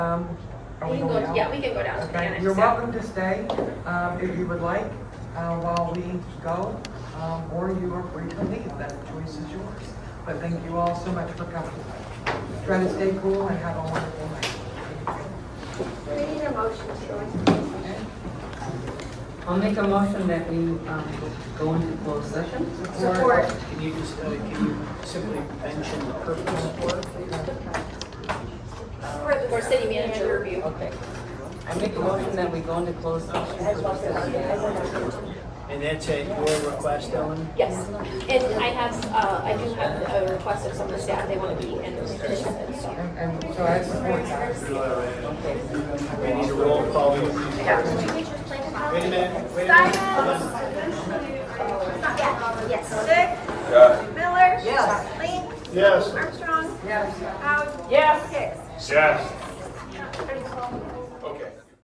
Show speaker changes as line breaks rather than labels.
Um, are
We
we
can
going
go,
out?
yeah, we can go down to the
Okay,
annex.
you're
so-
welcome to stay, um, if you would like, uh, while we go, um, or you are free to leave, that choice is yours. But thank you all so much for coming. Try to stay cool and have a wonderful night.
We need a motion to go into
Okay?
I'll make a motion that we um, go into closed session.
Support.
Can you just, uh, can you simply mention the purpose for it, please?
For city manager review.
Okay. I make a motion that we go into closed session. for discussion.
And that's at your request, Ellen?
Yes, and I have, uh, I do have a request of some of the staff, they want to be in this position, so.
And, and so I support that.
We need a roll call. Wait a minute, wait a minute.
Yes. Dick? Miller? Yes. Link?
Yes.
Armstrong? Yes. Howe?
Yes.
Hicks?
Yes.